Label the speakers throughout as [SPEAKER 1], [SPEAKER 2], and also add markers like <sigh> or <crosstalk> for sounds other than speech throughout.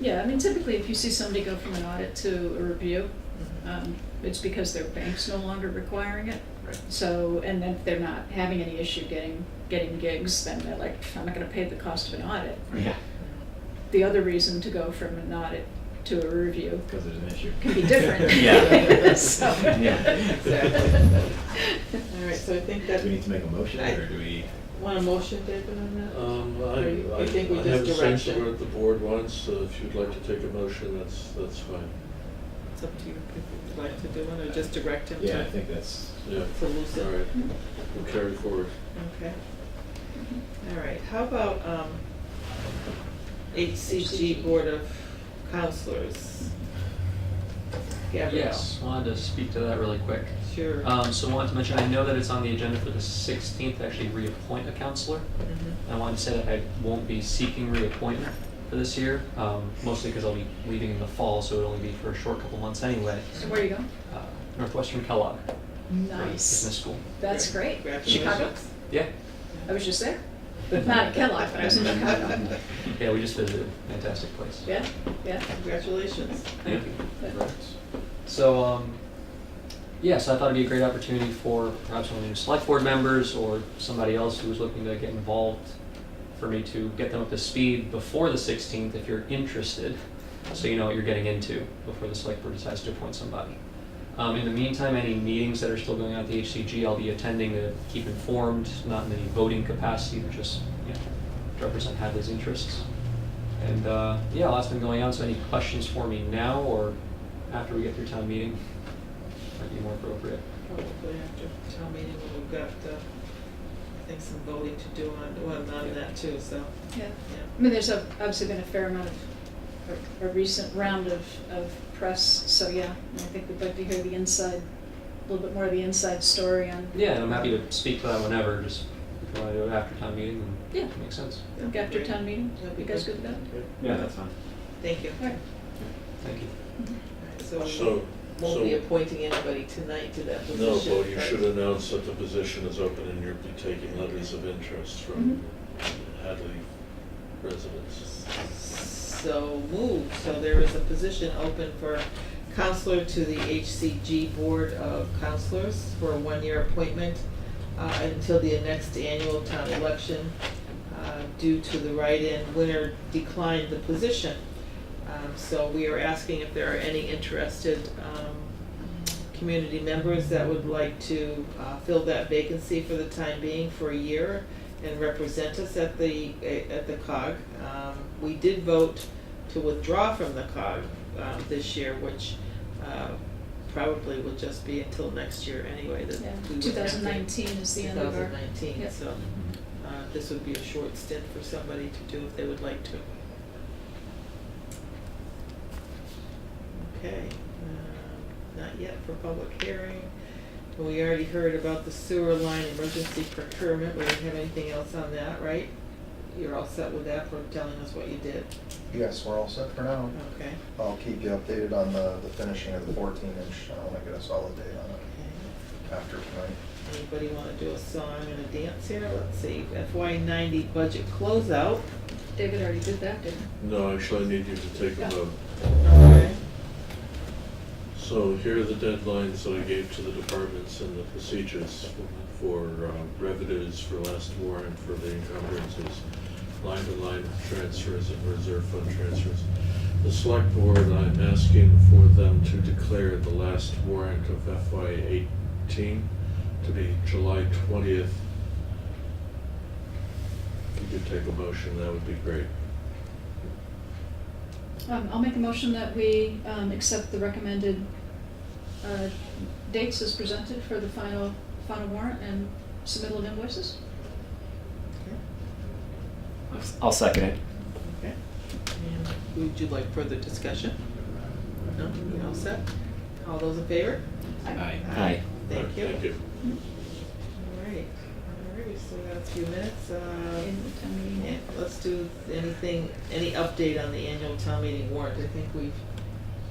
[SPEAKER 1] Yeah, I mean, typically, if you see somebody go from an audit to a review,
[SPEAKER 2] Uh,
[SPEAKER 1] um, it's because their bank's no longer requiring it.
[SPEAKER 3] Right.
[SPEAKER 1] So, and then if they're not having any issue getting, getting gigs, then they're like, I'm not gonna pay the cost of an audit.
[SPEAKER 3] Yeah,
[SPEAKER 1] The other reason to go from an audit to a review
[SPEAKER 3] because there's an issue.
[SPEAKER 1] can be different.
[SPEAKER 2] <laughs>
[SPEAKER 3] <laughs>
[SPEAKER 1] <laughs>
[SPEAKER 3] Yeah.
[SPEAKER 1] So-
[SPEAKER 3] Yeah, <laughs>
[SPEAKER 2] exactly. All right, so I think that,
[SPEAKER 3] Do we need to make a motion or do we?
[SPEAKER 2] want a motion, David, on that?
[SPEAKER 4] Um, I,
[SPEAKER 2] Or you-
[SPEAKER 4] I
[SPEAKER 2] you think we
[SPEAKER 4] I
[SPEAKER 2] just
[SPEAKER 4] have a sense of
[SPEAKER 2] direction?
[SPEAKER 4] what the board wants, so if you'd like to take a motion, that's, that's fine.
[SPEAKER 2] It's up to you if you'd like to do it, or just direct him to.
[SPEAKER 3] Yeah, I think that's,
[SPEAKER 4] Yeah,
[SPEAKER 2] To loosen.
[SPEAKER 4] all right, we'll carry forward.
[SPEAKER 2] Okay. All right, how about, um, HCG Board of Counselors? Gabrielle?
[SPEAKER 5] Yes, wanted to speak to that really quick.
[SPEAKER 2] Sure.
[SPEAKER 5] Um, so wanted to mention, I know that it's on the agenda for the sixteenth, to actually reappoint a counselor.
[SPEAKER 2] Mhm.
[SPEAKER 5] I wanted to say that I won't be seeking reappointment for this year, um, mostly because I'll be leaving in the fall, so it'll only be for a short couple months anyway.
[SPEAKER 1] So where you going?
[SPEAKER 5] Uh, Northwestern Kellogg. for Business
[SPEAKER 1] Nice.
[SPEAKER 5] school.
[SPEAKER 1] That's great. Chicago?
[SPEAKER 2] Congratulations.
[SPEAKER 5] Yeah,
[SPEAKER 1] I was just there. But not at Kellogg, but I was in Chicago.
[SPEAKER 5] yeah, we just visited, fantastic place.
[SPEAKER 1] Yeah, yeah.
[SPEAKER 2] Congratulations.
[SPEAKER 5] Thank you.
[SPEAKER 1] Yeah.
[SPEAKER 5] So, um, yeah, so I thought it'd be a great opportunity for perhaps one of the new select board members or somebody else who was looking to get involved for me to get them up to speed before the sixteenth if you're interested, so you know what you're getting into before the select board decides to appoint somebody. Um, in the meantime, any meetings that are still going on at the HCG, I'll be attending to keep informed, not in any voting capacity, but just, you know, to represent Hadley's interests. And uh, yeah, lots been going on. So any questions for me now or after we get through town meeting might be more appropriate.
[SPEAKER 2] Probably after town meeting, when we've got, uh, I think some voting to do on, well, on that too, so,
[SPEAKER 1] Yeah. I
[SPEAKER 2] yeah.
[SPEAKER 1] mean, there's ob- obviously been a fair amount of, a- a recent round of, of press, so yeah, I think we'd like to hear the inside, a little bit more of the inside story on.
[SPEAKER 5] Yeah, and I'm happy to speak to that whenever. Just if you want to do it after town meeting, then
[SPEAKER 1] Yeah.
[SPEAKER 5] makes sense.
[SPEAKER 1] Look After town meeting,
[SPEAKER 2] That'd be
[SPEAKER 1] you guys
[SPEAKER 2] good.
[SPEAKER 1] good with that?
[SPEAKER 3] yeah, that's fine.
[SPEAKER 2] Thank you.
[SPEAKER 1] All right.
[SPEAKER 5] Thank you.
[SPEAKER 2] So
[SPEAKER 4] So,
[SPEAKER 2] we won't be
[SPEAKER 4] so,
[SPEAKER 2] appointing anybody tonight to that position.
[SPEAKER 4] no, but you
[SPEAKER 2] right?
[SPEAKER 4] should announce that the position is open and you'll be taking letters of interest
[SPEAKER 1] Mhm.
[SPEAKER 4] from
[SPEAKER 2] Mm-hmm.
[SPEAKER 4] Hadley residents.
[SPEAKER 2] So moved, so there is a position open for counselor to the HCG Board of Counselors for a one-year appointment uh, until the next annual town election. uh, Due to the write-in winner declined the position. Um, So we are asking if there are any interested um, community members that would like to uh, fill that vacancy for the time being for a year and represent us at the, eh, at the COG. Um, We did vote to withdraw from the COG um, this year, which uh, probably will just be until next year anyway. that we would
[SPEAKER 1] Yeah,
[SPEAKER 2] have to-
[SPEAKER 1] two thousand nineteen is the end of our.
[SPEAKER 2] 2019,
[SPEAKER 1] Yep.
[SPEAKER 2] so uh, this would be a short stint for somebody to do if they would like to. Okay, um, not yet for public hearing. We already heard about the sewer line emergency procurement, we didn't have anything else on that, right? You're all set with that for telling us what you did,
[SPEAKER 6] Yes, we're all set for now.
[SPEAKER 2] okay?
[SPEAKER 6] I'll keep you updated on the, the finishing of the fourteen inch. I wanna get a solid date on it
[SPEAKER 2] Okay.
[SPEAKER 6] after tonight.
[SPEAKER 2] Anybody wanna do a song and a dance here? Let's see, FY ninety budget closeout.
[SPEAKER 1] David already did that, didn't he?
[SPEAKER 4] No, actually, I need you to take
[SPEAKER 1] Yeah.
[SPEAKER 4] a vote.
[SPEAKER 2] Okay.
[SPEAKER 4] So here are the deadlines that I gave to the departments and the procedures for uh, revenues, for last warrant, for the encumbrances, line-to-line transfers and reserve fund transfers. The select board, I'm asking for them to declare the last warrant of FY eighteen to be July twentieth. If you could take a motion, that would be great.
[SPEAKER 1] Um, I'll make a motion that we, um, accept the recommended, uh, dates as presented for the final, final warrant and submittal of invoices.
[SPEAKER 3] I'll second it.
[SPEAKER 2] Okay. And Would you like further discussion? No, you all set? All those in favor?
[SPEAKER 3] Aye.
[SPEAKER 2] Aye. Thank you.
[SPEAKER 4] Thank you.
[SPEAKER 2] All right, all right, we still got a few minutes. uh,
[SPEAKER 1] In the town meeting.
[SPEAKER 2] yeah, Let's do anything, any update on the annual town meeting warrant? I think we've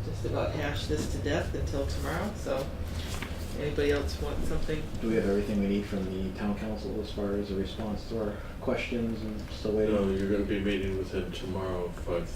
[SPEAKER 2] just about hashed this to death until tomorrow, so anybody else want something?
[SPEAKER 7] Do we have everything we need from the town council as far as a response to our questions and still waiting?
[SPEAKER 4] No, you're gonna be meeting with him tomorrow at five